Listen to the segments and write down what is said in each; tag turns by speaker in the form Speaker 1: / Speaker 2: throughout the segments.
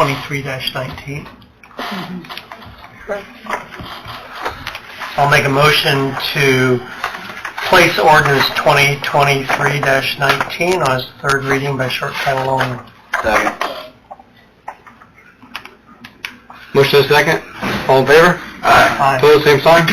Speaker 1: twenty-three nineteen. I'll make a motion to place ordinance twenty twenty-three nineteen on its third reading by short title only.
Speaker 2: Second. Motion is second. All in favor?
Speaker 1: Aye.
Speaker 2: Pose same sign.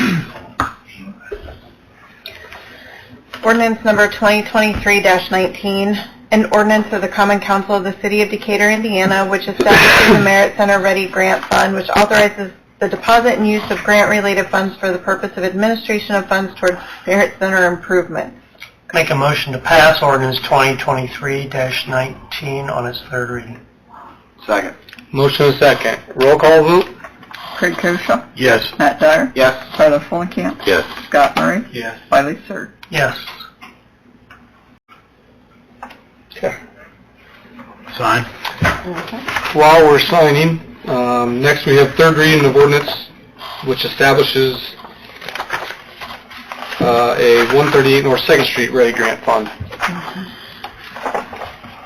Speaker 3: Ordinance number 2023-19, an ordinance of the Common Council of the City of Decatur, Indiana, which establishes the Merit Center Ready Grant Fund, which authorizes the deposit and use of grant-related funds for the purpose of administration of funds toward Merit Center improvements.
Speaker 1: Make a motion to pass ordinance twenty twenty-three nineteen on its third reading.
Speaker 2: Second. Motion is second. Roll call vote?
Speaker 3: Craig Koshaw,
Speaker 2: Yes.
Speaker 3: Matt Dyer,
Speaker 2: Yes.
Speaker 3: Tyler Fulenkamp,
Speaker 2: Yes.
Speaker 3: Scott Murray,
Speaker 2: Yes.
Speaker 3: Wiley Sir.
Speaker 1: Yes.
Speaker 2: Sign. While we're signing, um, next we have third reading of ordinance which establishes uh, a 138 North Second Street Ready Grant Fund.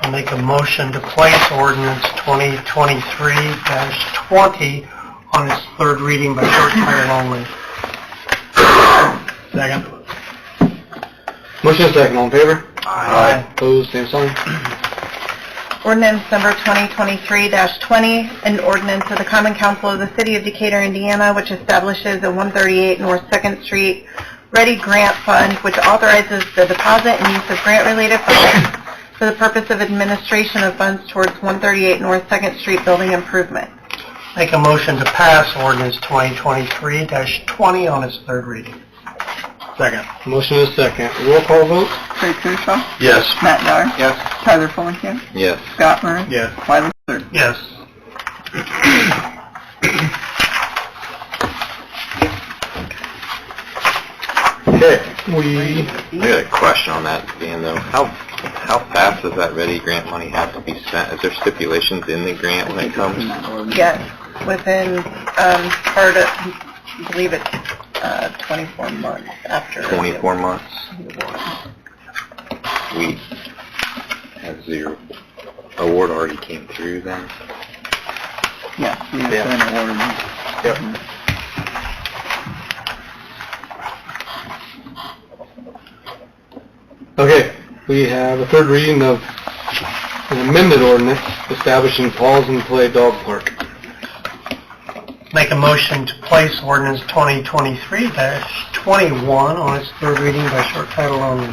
Speaker 1: I'll make a motion to place ordinance twenty twenty-three twenty on its third reading by short title only. Second.
Speaker 2: Motion is second. All in favor?
Speaker 1: Aye.
Speaker 2: Pose same sign.
Speaker 3: Ordinance number 2023-20, an ordinance of the Common Council of the City of Decatur, Indiana, which establishes a 138 North Second Street Ready Grant Fund, which authorizes the deposit and use of grant-related funds for the purpose of administration of funds towards 138 North Second Street building improvement.
Speaker 1: Make a motion to pass ordinance 2023-20 on its third reading. Second.
Speaker 2: Motion is second. Roll call vote?
Speaker 3: Craig Koshaw,
Speaker 2: Yes.
Speaker 3: Matt Dyer,
Speaker 2: Yes.
Speaker 3: Tyler Fulenkamp,
Speaker 2: Yes.
Speaker 3: Scott Murray,
Speaker 2: Yes.
Speaker 3: Wiley Sir.
Speaker 1: Yes.
Speaker 2: Okay. We,
Speaker 4: I got a question on that, Dan, though. How, how fast does that ready grant money have to be spent? Is there stipulations in the grant when it comes?
Speaker 3: Yes, within, um, part of, I believe it's, uh, 24 months after.
Speaker 4: 24 months? We has the award already came through then?
Speaker 3: Yeah, we
Speaker 2: Yeah. Yep. Okay, we have a third reading of an amended ordinance establishing Paul's and Play Dog Park.
Speaker 1: Make a motion to place ordinance 2023-21 on its third reading by short title only.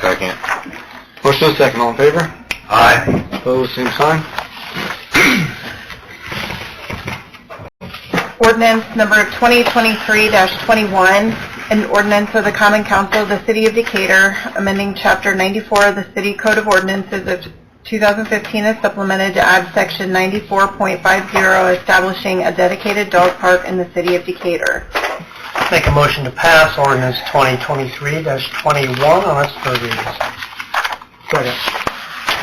Speaker 4: Second?
Speaker 2: Motion is second, all in favor?
Speaker 4: Aye.
Speaker 2: Opposed, same sign?
Speaker 3: Ordinance number 2023-21, an ordinance of the Common Council of the City of Decatur, amending Chapter 94 of the City Code of Ordinances of 2015 as supplemented to add Section 94.50, establishing a dedicated dog park in the City of Decatur.
Speaker 1: Make a motion to pass ordinance 2023-21 on its third reading. Second.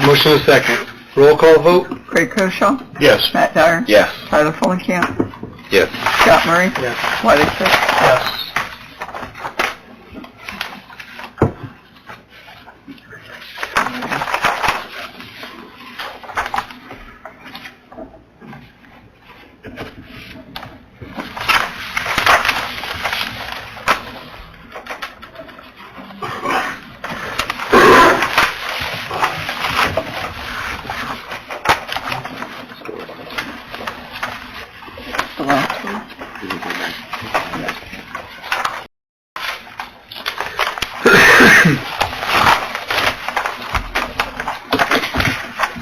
Speaker 2: Motion is second. Roll call vote?
Speaker 3: Craig Koshaw,
Speaker 2: Yes.
Speaker 3: Matt Dyer,
Speaker 4: Yes.
Speaker 3: Tyler Fulenkamp,
Speaker 4: Yes.
Speaker 3: Scott Murray,
Speaker 2: Yes.
Speaker 3: Wiley Sir.
Speaker 1: Yes.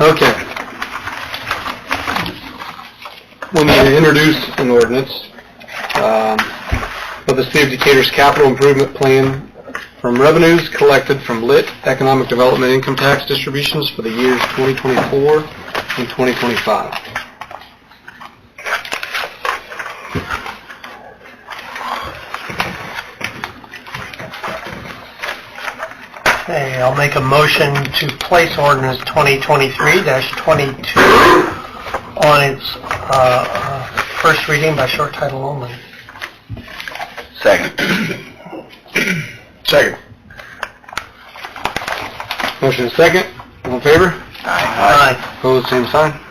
Speaker 2: Okay. We need to introduce an ordinance um, of the City of Decatur's capital improvement plan from revenues collected from lit economic development income tax distributions for the years 2024 and 2025.
Speaker 1: Okay, I'll make a motion to place ordinance 2023-22 on its uh, uh, first reading by short title only.
Speaker 4: Second?
Speaker 2: Second. Motion is second. All in favor?
Speaker 1: Aye.
Speaker 2: Opposed, same sign.